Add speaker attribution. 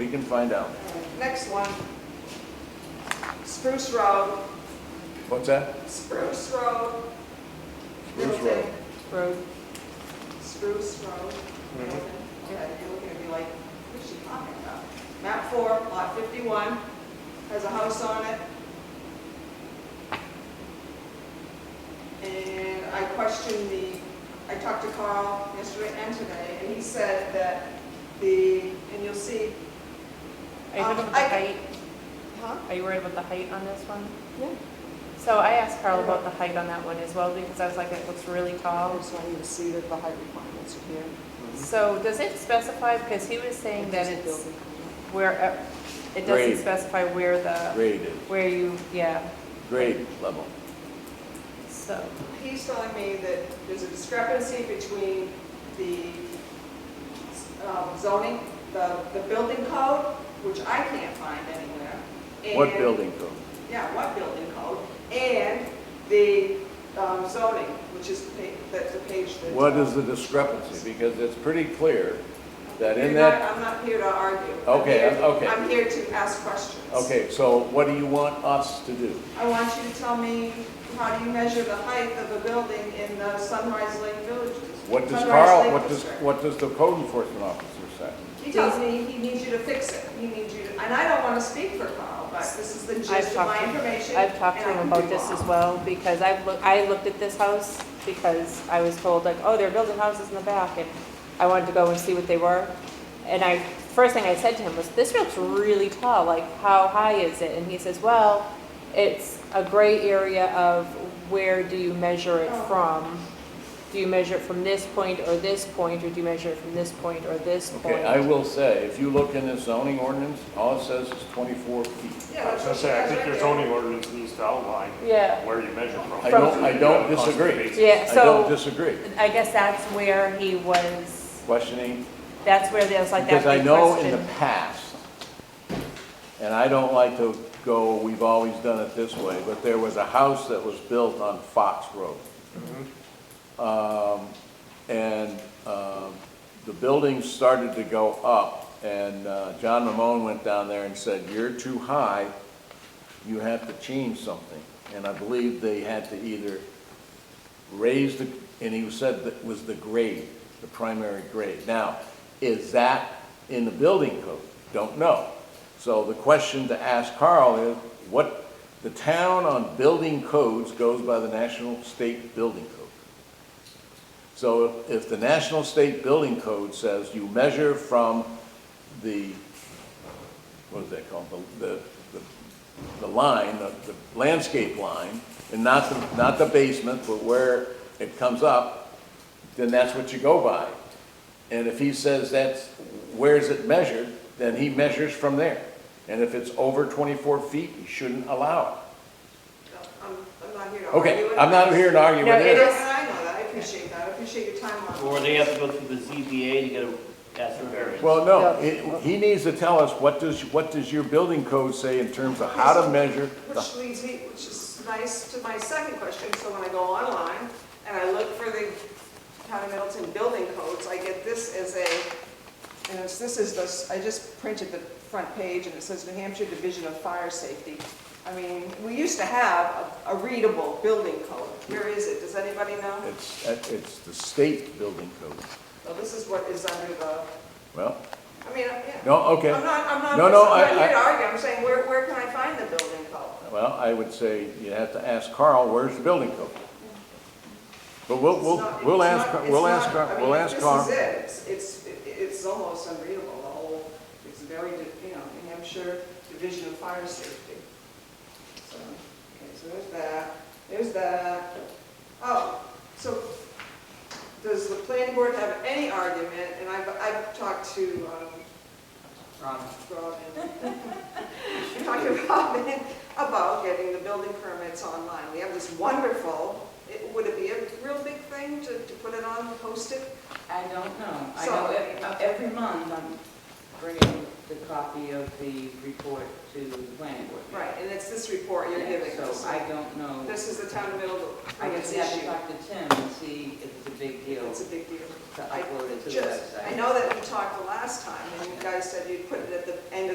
Speaker 1: can find out.
Speaker 2: Next one. Spruce Road,
Speaker 1: What's that?
Speaker 2: Spruce Road.
Speaker 1: Spruce Road.
Speaker 2: Road. Spruce Road.
Speaker 1: Mm-hmm.
Speaker 2: Okay, you're looking at me like, what's she talking about? Map four, lot fifty-one, has a house on it. And I questioned the, I talked to Carl yesterday and today, and he said that the, and you'll see,
Speaker 3: Are you
Speaker 2: Um,
Speaker 3: worried about the
Speaker 2: I-
Speaker 3: height?
Speaker 2: huh?
Speaker 3: Are you worried about the height on this one?
Speaker 2: Yeah.
Speaker 3: So I asked Carl about the height on that one as well, because I was like, it looks really
Speaker 2: Oh, I
Speaker 3: tall.
Speaker 2: just want you to see that the height requirements are here.
Speaker 3: So does it specify, because he was saying that
Speaker 2: Just
Speaker 3: it's
Speaker 2: building code.
Speaker 3: where, uh,
Speaker 1: Grade.
Speaker 3: it doesn't specify where the,
Speaker 1: Grade is,
Speaker 3: where you, yeah,
Speaker 1: grade level.
Speaker 3: so.
Speaker 2: He's telling me that there's a discrepancy between the um, zoning, the, the building code, which I can't find anywhere. and-
Speaker 1: What building code?
Speaker 2: Yeah, what building code, and the um, zoning, which is, pa- that's the page that.
Speaker 1: What is the discrepancy? Because it's pretty clear that in
Speaker 2: You're
Speaker 1: that,
Speaker 2: not- I'm not here to argue. I'm
Speaker 1: Okay,
Speaker 2: here-
Speaker 1: I'm- okay.
Speaker 2: I'm here to ask questions.
Speaker 1: okay, so what do you want us to do?
Speaker 2: I want you to tell me, how do you measure the height of a building in the Sunrise Lake Village?
Speaker 1: What does
Speaker 2: Sunrise
Speaker 1: Carl,
Speaker 2: Lake
Speaker 1: what does,
Speaker 2: District?
Speaker 1: what does the code enforcement officer say?
Speaker 2: He tells me he needs you to fix it, he needs you to, and I don't want to speak for Carl, but this is the
Speaker 3: I've
Speaker 2: gist of
Speaker 3: talked
Speaker 2: my
Speaker 3: to him-
Speaker 2: information.
Speaker 3: I've talked to
Speaker 2: and I
Speaker 3: him
Speaker 2: can
Speaker 3: about
Speaker 2: do
Speaker 3: this as
Speaker 2: wrong.
Speaker 3: well, because I've looked, I looked at this house because I was told like, oh, they're building houses in the back, and I wanted to go and see what they were. And I, first thing I said to him was, this looks really tall, like, how high is it? And he says, well, it's a gray area of where do you measure it
Speaker 2: Oh.
Speaker 3: from? Do you measure it from this point or this point, or do you measure it from this point or this point?
Speaker 1: Okay, I will say, if you look in the zoning ordinance, all it says is twenty-four feet.
Speaker 2: Yeah,
Speaker 4: I
Speaker 2: that's
Speaker 4: was gonna
Speaker 2: what she
Speaker 4: say, I
Speaker 2: has
Speaker 4: think
Speaker 2: right
Speaker 4: your
Speaker 2: there.
Speaker 4: zoning ordinance needs to outline
Speaker 3: Yeah,
Speaker 4: where you measure from.
Speaker 1: I don't- I don't disagree.
Speaker 3: yeah,
Speaker 1: I
Speaker 3: so.
Speaker 1: don't disagree.
Speaker 3: I guess that's where he was,
Speaker 1: Questioning,
Speaker 3: that's where there's like that
Speaker 1: because I
Speaker 3: big
Speaker 1: know in the
Speaker 3: question.
Speaker 1: past, and I don't like to go, we've always done it this way, but there was a house that was built on Fox Road. Um, And um, the building started to go up, and uh, John Ramon went down there and said, you're too high, you have to change something. And I believe they had to either raise the, and he said that was the grade, the primary grade. Now, is that in the building code? Don't know. So the question to ask Carl is, what, the town on building codes goes by the National State Building Code. So if the National State Building Code says you measure from the, what is that called, the, the, the- the line, the the landscape line, and not the, not the basement, but where it comes up, then that's what you go by. And if he says that's, where's it measured, then he measures from there. And if it's over twenty-four feet, he shouldn't allow
Speaker 2: I'm, I'm not here
Speaker 1: it.
Speaker 2: to argue.
Speaker 1: Okay,
Speaker 2: with
Speaker 1: I'm not
Speaker 2: you.
Speaker 1: here to argue
Speaker 3: No,
Speaker 1: with
Speaker 2: And
Speaker 3: it
Speaker 2: I
Speaker 1: it.
Speaker 3: is-
Speaker 2: and I know that, I appreciate that, I appreciate your time on it.
Speaker 5: Or they have to go through the ZBA to get a, ask for variance.
Speaker 1: Well, no, it- he needs to tell us, what does, what does your building code say in terms of how to measure? the-
Speaker 2: Which leads me, which is nice to my second question, so when I go online and I look for the town of Middleton building codes, I get this as a, and it's, this is the, I just printed the front page and it says New Hampshire Division of Fire Safety. I mean, we used to have a a readable building code. Where is it? Does anybody know?
Speaker 1: It's, it's the state building code.
Speaker 2: Well, this is what is under the,
Speaker 1: Well,
Speaker 2: I mean, yeah.
Speaker 1: no, okay.
Speaker 2: I'm not, I'm not, I'm
Speaker 1: No, no,
Speaker 2: not
Speaker 1: I-
Speaker 2: here
Speaker 1: I-
Speaker 2: to argue, I'm saying, where, where can I find the building code?
Speaker 1: Well, I would say you have to ask Carl, where's the building code? But we'll,
Speaker 2: It's
Speaker 1: we'll,
Speaker 2: not-
Speaker 1: we'll
Speaker 2: it's
Speaker 1: ask,
Speaker 2: not- it's
Speaker 1: we'll
Speaker 2: not-
Speaker 1: ask,
Speaker 2: I
Speaker 1: Carl.
Speaker 2: mean,
Speaker 1: we'll ask
Speaker 2: This
Speaker 1: Carl.
Speaker 2: is it, it's, it's, it's almost unreadable, the whole, it's very, di- you know, New Hampshire Division of Fire Safety. So, okay, so there's that, there's that. Oh, so does the planning board have any argument, and I've, I've talked to, um,
Speaker 5: Um,
Speaker 2: Robin. Talking to Robin about getting the building permits online. We have this wonderful, it- would it be a real big thing to, to put it on, post it?
Speaker 6: I don't know. I
Speaker 2: So-
Speaker 4: uh,
Speaker 6: know every, every month I'm bringing
Speaker 4: the copy of the report to the planning board.
Speaker 2: Right, and it's this report you're giving
Speaker 4: So
Speaker 2: us.
Speaker 4: I don't know,
Speaker 2: This is the town of Middleborough,
Speaker 4: I
Speaker 2: it's
Speaker 4: just have to
Speaker 2: issue.
Speaker 4: talk to Tim and see if it's a big deal
Speaker 2: It's a big deal.
Speaker 4: to upload it to the
Speaker 2: Just-
Speaker 4: website.
Speaker 2: I know that we talked the last time, and you guys said you'd put it at the end of